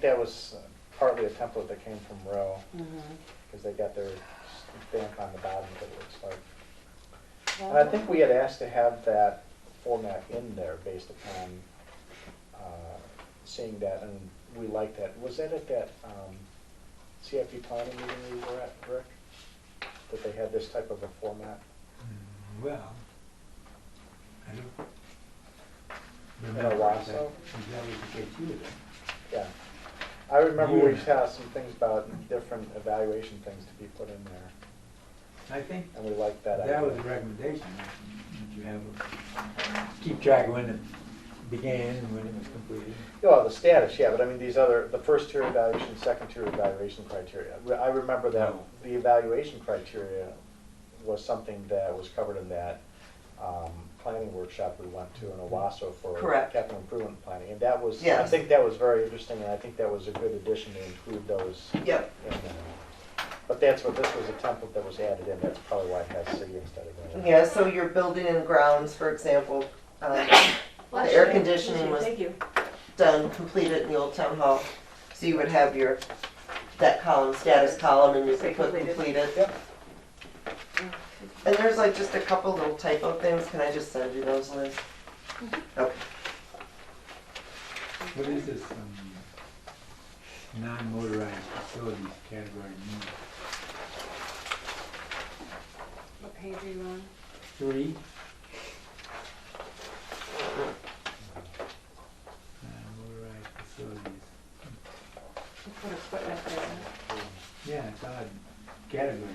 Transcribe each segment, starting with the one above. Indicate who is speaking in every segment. Speaker 1: That was uh, partly a template that came from Row,
Speaker 2: Mhm.
Speaker 1: because they got their stamp on the bottom of it, it looks like. And I think we had asked to have that format in there based upon uh, seeing that, and we liked that. Was that at that um, CFP planning meeting we were at, Rick? That they had this type of a format?
Speaker 3: Mm, Well, I don't.
Speaker 1: a
Speaker 3: remember
Speaker 1: while,
Speaker 3: that-
Speaker 1: so?
Speaker 3: That was the case you were there.
Speaker 1: Yeah. I remember we
Speaker 3: Yeah.
Speaker 1: had some things about different evaluation things to be put in there,
Speaker 3: I think
Speaker 1: and we liked that idea.
Speaker 3: that was the recommendation, that you have, a- keep track of when it began and when it was completed.
Speaker 1: Yeah, Well, the status, yeah, but I mean, these other, the first tier evaluation, second tier evaluation criteria. Re- I remember that
Speaker 3: No.
Speaker 1: the evaluation criteria was something that was covered in that um, planning workshop we went to in Owasso for
Speaker 2: Correct.
Speaker 1: capital improvement planning. And that was, I
Speaker 2: Yes.
Speaker 1: think that was very interesting, and I think that was a good addition to include those. in
Speaker 2: Yep,
Speaker 1: there. But that's what, this was a template that was added in, that's probably why it has city instead of.
Speaker 2: yeah, so your building and grounds, for example, um,
Speaker 4: Well,
Speaker 2: The air
Speaker 4: actually, actually,
Speaker 2: conditioning was-
Speaker 4: Thank you.
Speaker 2: done, completed in the old town hall. So you would have your, that column, status column, and you could put
Speaker 4: Completed.
Speaker 2: completed.
Speaker 1: Yep.
Speaker 2: And there's like just a couple little typo things, can I just send you those, Liz? Okay,
Speaker 3: What is this, um, non-motorized facilities category mean?
Speaker 4: What page are you on?
Speaker 3: Three? Non-motorized facilities,
Speaker 4: You put equipment there.
Speaker 3: yeah, it's odd category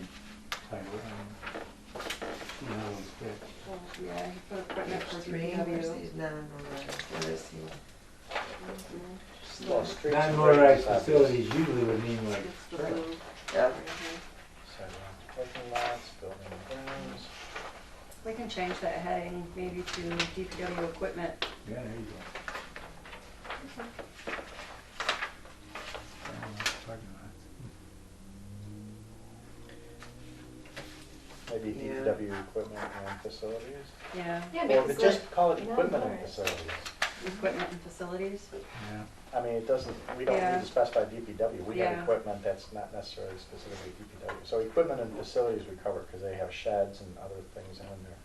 Speaker 3: title, I don't see how those fit.
Speaker 4: Well, Yeah, you put equipment for
Speaker 2: there's three, where's
Speaker 4: DPW.
Speaker 2: the, no, no, no, where is he?
Speaker 4: Mhm.
Speaker 1: Well, streets and bridges,
Speaker 3: Non-motorized
Speaker 1: obviously.
Speaker 3: facilities usually would mean like,
Speaker 4: It's the blue.
Speaker 2: Yeah,
Speaker 1: Sidewalks, Parking lots, building and grounds.
Speaker 4: We can change that heading maybe to DPW equipment.
Speaker 3: yeah, there you go. Oh, Parking lots.
Speaker 1: Maybe
Speaker 2: Yeah.
Speaker 1: DPW equipment and facilities?
Speaker 4: Yeah,
Speaker 5: Yeah,
Speaker 1: Or
Speaker 5: because like,
Speaker 1: just call it
Speaker 5: no,
Speaker 1: equipment and
Speaker 5: alright.
Speaker 1: facilities.
Speaker 4: equipment and facilities.
Speaker 3: Yeah,
Speaker 1: I mean, it doesn't, we don't
Speaker 4: Yeah.
Speaker 1: need to specify DPW. We have
Speaker 4: Yeah.
Speaker 1: equipment that's not necessarily specifically DPW. So equipment and facilities we cover because they have sheds and other things in there.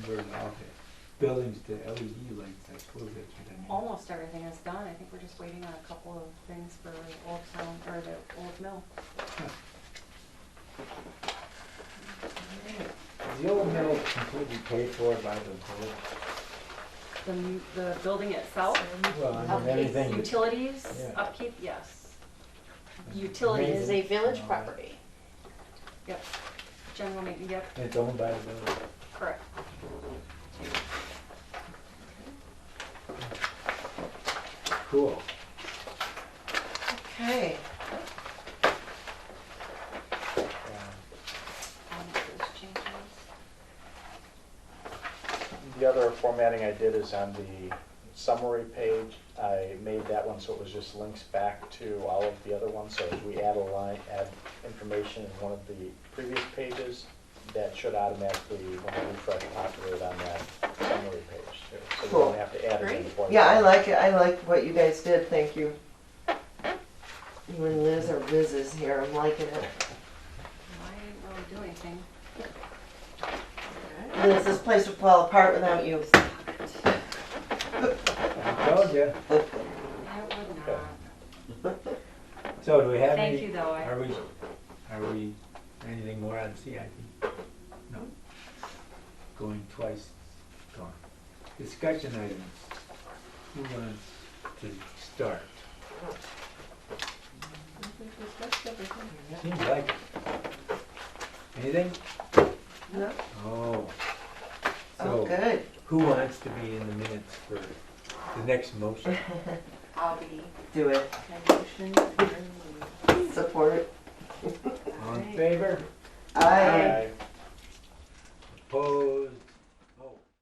Speaker 3: converted all the buildings to LED lights, I suppose that's what I mean.
Speaker 4: Almost everything is done. I think we're just waiting on a couple of things for Old Town, or the Old Mill.
Speaker 3: Is the old mill completely paid for by the village?
Speaker 4: The, m- the building itself,
Speaker 3: Well, I mean,
Speaker 5: Upkeep,
Speaker 3: everything.
Speaker 4: utilities,
Speaker 3: Yeah.
Speaker 4: upkeep, yes.
Speaker 5: it
Speaker 4: Utilities,
Speaker 5: is a village property.
Speaker 4: yep. General maintenance, yep,
Speaker 3: It's owned by the village.
Speaker 4: correct.
Speaker 3: Cool.
Speaker 2: okay,
Speaker 1: Um,
Speaker 4: I'll make those changes.
Speaker 1: The other formatting I did is on the summary page. I made that one so it was just links back to all of the other ones. So if we add a line, add information in one of the previous pages, that should automatically, when I refresh, populate on that summary page too. So we
Speaker 2: Cool.
Speaker 1: don't have to add it in
Speaker 5: Great.
Speaker 1: before.
Speaker 2: yeah, I like it, I like what you guys did, thank you. You and Liz or Liz is here, I'm liking it.
Speaker 4: I didn't really do anything.
Speaker 2: Liz, this place would fall apart without you.
Speaker 3: I told you.
Speaker 4: I would
Speaker 1: Okay.
Speaker 4: not.
Speaker 3: So do we have any?
Speaker 4: Thank you, though. I-
Speaker 3: Are we, are we, anything more on CIP? No. Going twice, gone. Discussion items. Who wants to start? Seems like. it. Anything?
Speaker 2: No?
Speaker 3: Oh.
Speaker 2: Oh,
Speaker 3: So
Speaker 2: good.
Speaker 3: who wants to be in the minutes for the next motion?
Speaker 5: I'll be
Speaker 2: Do it.
Speaker 5: my motion